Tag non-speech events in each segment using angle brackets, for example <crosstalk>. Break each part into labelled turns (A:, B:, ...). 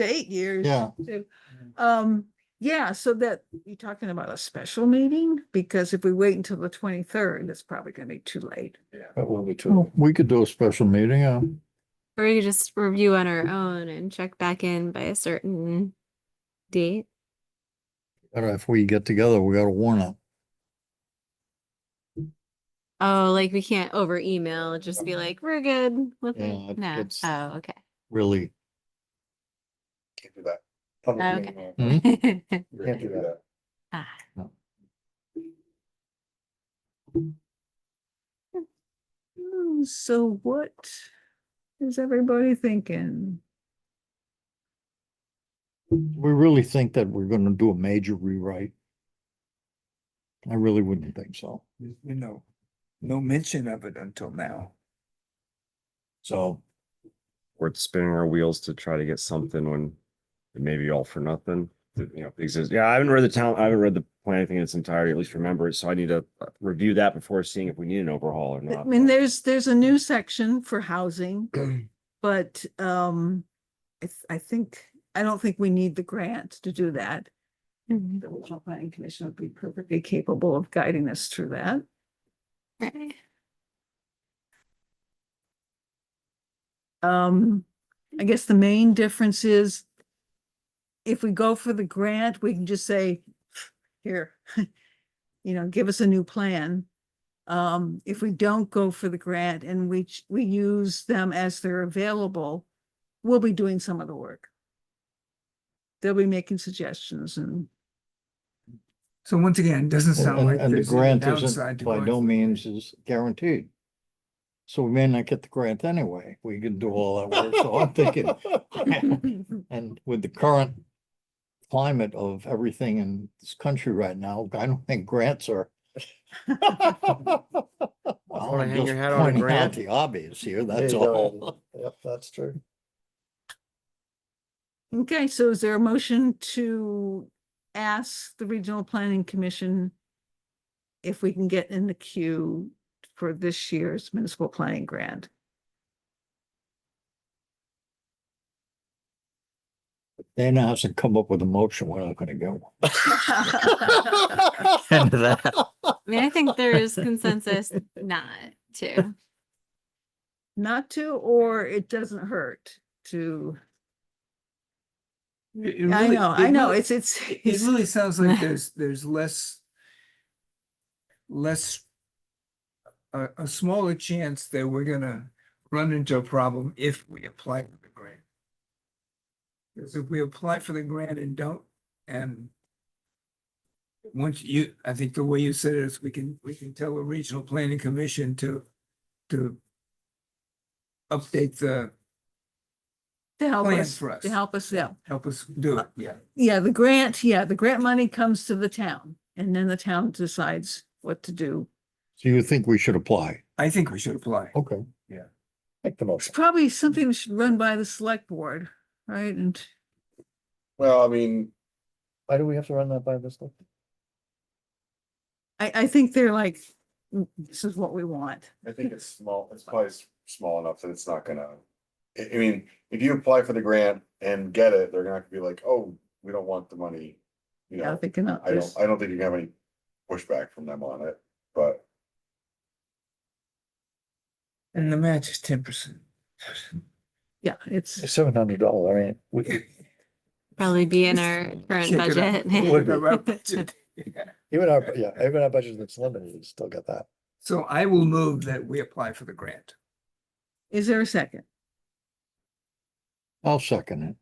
A: to eight years.
B: Yeah.
A: too. Um, yeah, so that, you're talking about a special meeting? Because if we wait until the twenty-third, it's probably gonna be too late.
C: That will be
B: Well, We could do a special meeting, uh,
D: Or we could just review on our own and check back in by a certain date.
B: or if we get together, we gotta warn it.
D: Oh, like we can't over email, just be like, we're good with
B: Yeah,
D: it.
B: it-
D: No.
B: it's-
D: Oh, okay.
B: Really,
C: Can't do that. Public
D: Okay.
C: meeting, uh,
B: Hmm?
C: Can't do that.
D: Ah.
A: Hmm, So what is everybody thinking?
B: we really think that we're gonna do a major rewrite. I really wouldn't think so.
E: you know, no mention of it until now.
B: So,
F: worth spinning our wheels to try to get something when it may be all for nothing. that, You know, exists. Yeah, I haven't read the town, I haven't read the plan, I think in its entirety, at least remember it. So I need to uh, review that before seeing if we need an overhaul or
A: I
F: not.
A: mean, there's, there's a new section for housing, but, um, I, th- I think, I don't think we need the grant to do that.
D: Mhm. <laughs>
A: The regional planning commission would be perfectly capable of guiding us through that.
D: Right.
A: Um, I guess the main difference is if we go for the grant, we can just say, here, <laughs> you know, give us a new plan. Um, if we don't go for the grant and we, ch- we use them as they're available, we'll be doing some of the work. They'll be making suggestions and <laughs>
E: So once again, it doesn't sound
B: and,
E: like
B: and the
E: there's any
B: grant
E: downside
B: isn't,
E: to
B: by
E: going
B: no
E: for-
B: means is guaranteed. So we may not get the grant anyway. We can do all that work, so I'm
C: <laughs>
B: thinking,
E: <laughs>
B: and with the current climate of everything in this country right now, I don't think grants are.
C: Wanna hang
B: just
C: your hat on a
B: pointing out
C: grant?
B: The obvious here,
C: There
B: that's
C: you go,
B: all.
C: Andy. Yep, that's true.
A: Okay, so is there a motion to ask the Regional Planning Commission if we can get in the queue for this year's municipal planning
E: <laughs>
A: grant?
B: Dana hasn't come up with a motion, we're not gonna get
C: <laughs>
B: one. End of that.
D: I mean, I think there is consensus not
B: <laughs>
D: to.
A: Not to, or it doesn't hurt to,
E: It- it
A: I
E: really-
A: know,
E: it
A: I know,
E: really-
A: it's, it's,
E: It
A: it's-
E: really sounds like
A: <laughs>
E: there's, there's less, less, a, a smaller chance that we're gonna run into a problem if we apply for the grant. Because if we apply for the grant and don't, and once you, I think the way you said it is we can, we can tell the regional planning commission to, to update the,
A: to help
E: plan
A: us,
E: for us.
A: to help us, yeah.
E: help us do
A: Uh,
E: it, yeah.
A: Yeah, the grant, yeah, the grant money comes to the town and then the town decides what to do.
B: So you think we should apply?
E: I think we should apply.
B: Okay.
C: Make the
A: It's
C: motion.
A: probably something we should run by the select board, right? And
C: Well, I mean. Why do we have to run that by this? one?
A: I, I think they're like, "Mm, this is what we want.
G: I think it's small, it's probably s- small enough that it's not gonna, I, I mean, if you apply for the grant and get it, they're not gonna be like, oh, we don't want the money. You
A: Yeah,
G: know,
A: they cannot,
G: I don't, I don't think you have any pushback from them on it, but
E: And the match is ten percent. <laughs>
A: yeah, it's,
C: Seven hundred dollar, I mean, we,
D: Probably be in our current <laughs> budget.
C: even our, yeah, even our budget that's limited, we still got that.
E: So I will move that we apply for the grant.
A: is there a second?
B: I'll second it.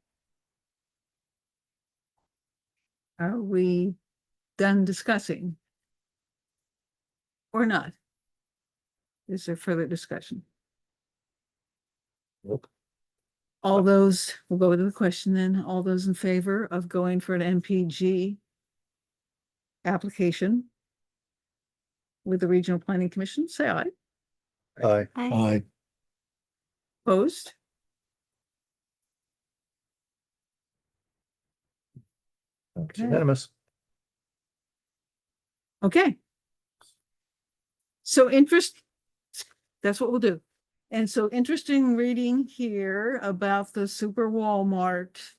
A: Are we done discussing? Or not? Is there further discussion?
C: Nope.
A: All those, we'll go to the question then, all those in favor of going for an MPG application with the Regional Planning Commission, say aye.
C: Aye.
D: Hi.
B: I,
A: Opposed?
C: It's
A: Okay.
C: unanimous.
A: Okay. So interest, that's what we'll do. And so interesting reading here about the Super Walmart